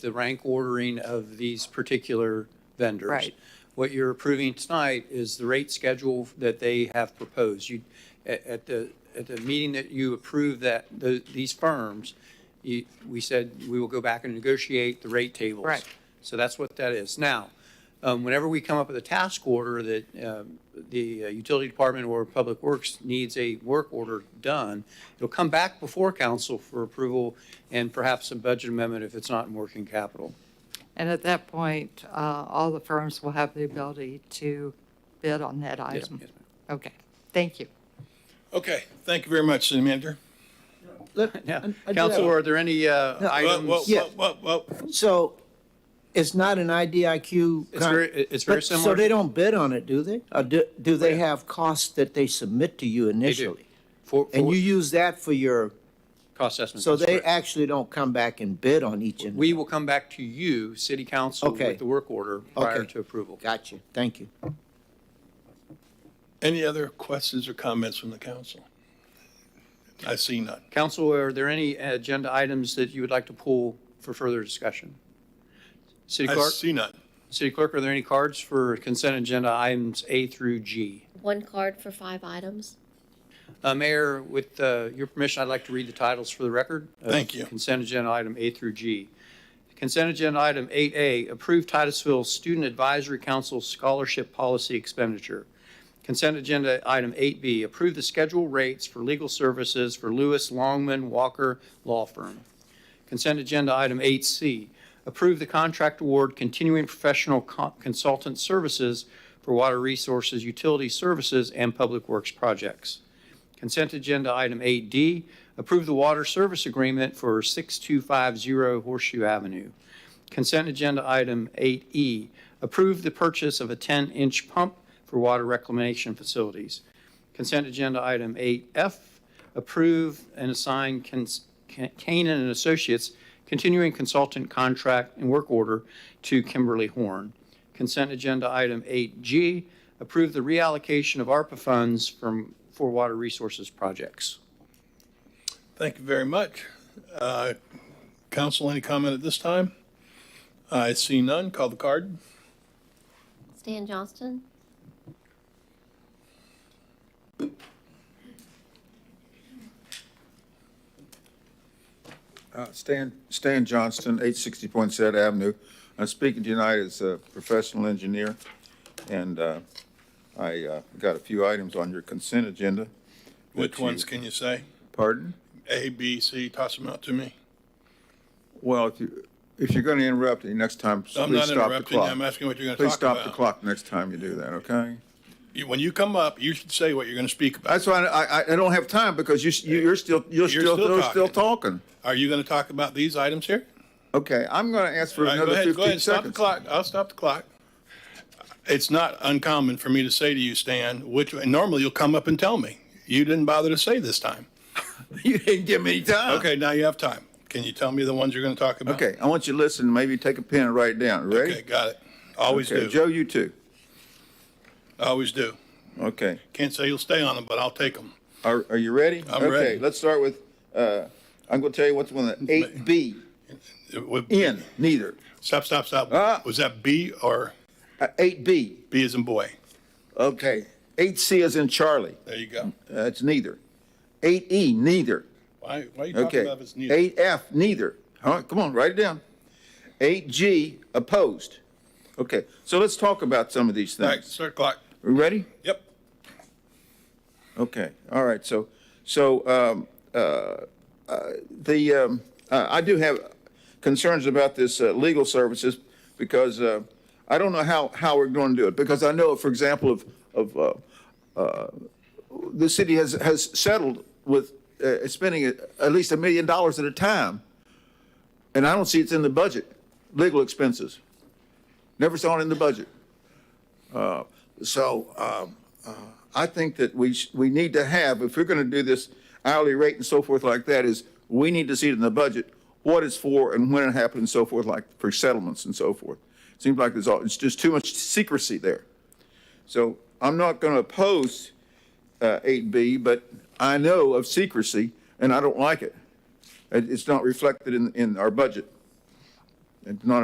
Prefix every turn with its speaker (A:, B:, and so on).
A: the rank ordering of these particular vendors.
B: Right.
A: What you're approving tonight is the rate schedule that they have proposed. You, at, at the, at the meeting that you approved that, the, these firms, you, we said we will go back and negotiate the rate tables.
B: Right.
A: So that's what that is. Now, um, whenever we come up with a task order that, um, the uh, utility department or public works needs a work order done, it'll come back before council for approval and perhaps a budget amendment if it's not in working capital.
B: And at that point, uh, all the firms will have the ability to bid on that
A: Yes,
B: item.
A: yes, ma'am.
B: Okay, thank you.
C: Okay, thank you very much, City Manager.
D: Let- I- I
A: Now,
D: do have-
A: Council, are there any uh,
D: No.
C: Well, well,
A: items?
D: Yeah.
C: well, well, well,
D: So it's not an IDIQ.
A: It's
D: con-
A: very, it's very
D: but-
A: similar.
D: So they don't bid on it, do they? Or do, do they
A: Yeah.
D: have costs that they submit to you initially?
A: For,
D: And you
A: for
D: use that for your,
A: cost estimate.
D: so
A: that's
D: they
A: correct.
D: actually don't come back and bid on each and,
A: We will come back to you, city council,
D: Okay.
A: with the work order prior
D: Okay.
A: to approval.
D: got you, thank you.
C: any other questions or comments from the council? I see none.
A: Council, are there any agenda items that you would like to pull for further discussion? City
C: I
A: clerk,
C: see none.
A: city clerk, are there any cards for consent agenda items A through G?
E: One card for five items.
A: Uh, Mayor, with uh, your permission, I'd like to read the titles for the record. of
C: Thank you.
A: Consent agenda item A through G. Consent agenda item 8A, approve Titusville Student Advisory Council Scholarship Policy Expenditure. Consent agenda item 8B, approve the schedule rates for legal services for Lewis Longman Walker Law Firm. Consent agenda item 8C, approve the contract award continuing professional co- consultant services for water resources, utility services, and public works projects. Consent agenda item 8D, approve the water service agreement for 6250 Horseshoe Avenue. Consent agenda item 8E, approve the purchase of a 10-inch pump for water reclamation facilities. Consent agenda item 8F, approve and assign Cans- Can- Canaan and Associates continuing consultant contract and work order to Kimberly Horn. Consent agenda item 8G, approve the reallocation of ARPA funds from, for water resources projects.
C: Thank you very much. Uh, Council, any comment at this time? I see none. Call the card.
E: Stan Johnston,
F: Uh, Stan, Stan Johnston, 860 Poinsett Avenue. I'm speaking tonight as a professional engineer, and uh, I uh, got a few items on your consent agenda.
C: Which
F: that you-
C: ones can you say?
F: Pardon?
C: A, B, C, toss them out to me.
F: Well, if you, if you're going to interrupt me next time, please stop
C: I'm
F: the
C: not
F: clock.
C: interrupting. I'm asking what you're going to
F: Please
C: talk about.
F: stop the clock next time you do that, okay?
C: You- When you come up, you should say what you're going to speak about.
F: That's why I, I- I don't have time, because you, s- you- you're still, you're
C: You're
F: still,
C: still
F: you're still
C: talking.
F: talking.
C: Are you going to talk about these items here?
F: Okay, I'm going to ask for
C: All right, go
F: another
C: ahead, go
F: 15
C: ahead,
F: seconds.
C: stop the clock, I'll stop the clock. It's not uncommon for me to say to you, Stan, which, and normally you'll come up and tell me. You didn't bother to say this time.
F: You didn't give me time.
C: Okay, now you have time. Can you tell me the ones you're going to talk about?
F: Ah. Okay, I want you to listen, maybe take a pen and write it down.
C: Okay,
F: Ready?
C: got it. Always
F: Okay,
C: do,
F: Joe, you too.
C: always do.
F: Okay.
C: Can't say you'll stay on them, but I'll take them.
F: Are, are you ready?
C: I'm
F: Okay,
C: ready.
F: let's start with, uh, I'm gonna tell you what's one of the eight B, N, neither.
C: Stop, stop,
F: Ah.
C: stop. Was that B or
F: Eight B,
C: B as in boy?
F: okay. Eight C is in Charlie,
C: There you go.
F: that's neither. Eight E, neither,
C: Why, why are you talking
F: okay.
C: about if it's neither?
F: Eight F, neither. All right, come on, write it down. Eight G, opposed. Okay, so let's talk about some of these
C: All right,
F: things.
C: start clock.
F: We Ready?
C: Yep.
F: Okay, all right, so, so, um, uh, uh, the, um, uh, I do have concerns about this, uh, legal services, because, uh, I don't know how, how we're going to do it, because I know, for example, of, of, uh, the city has, has settled with uh, spending at least a million dollars at a time. And I don't see it's in the budget, legal expenses. Never saw it in the budget. Uh, So um, uh, I think that we, sh- we need to have, if we're going to do this hourly rate and so forth like that, is we need to see it in the budget, what it's for and when it happened and so forth, like for settlements and so forth. Seems like there's, all it's just too much secrecy there. So I'm not going to oppose uh, 8B, but I know of secrecy, and I don't like it. It- It's not reflected in, in our budget. It's not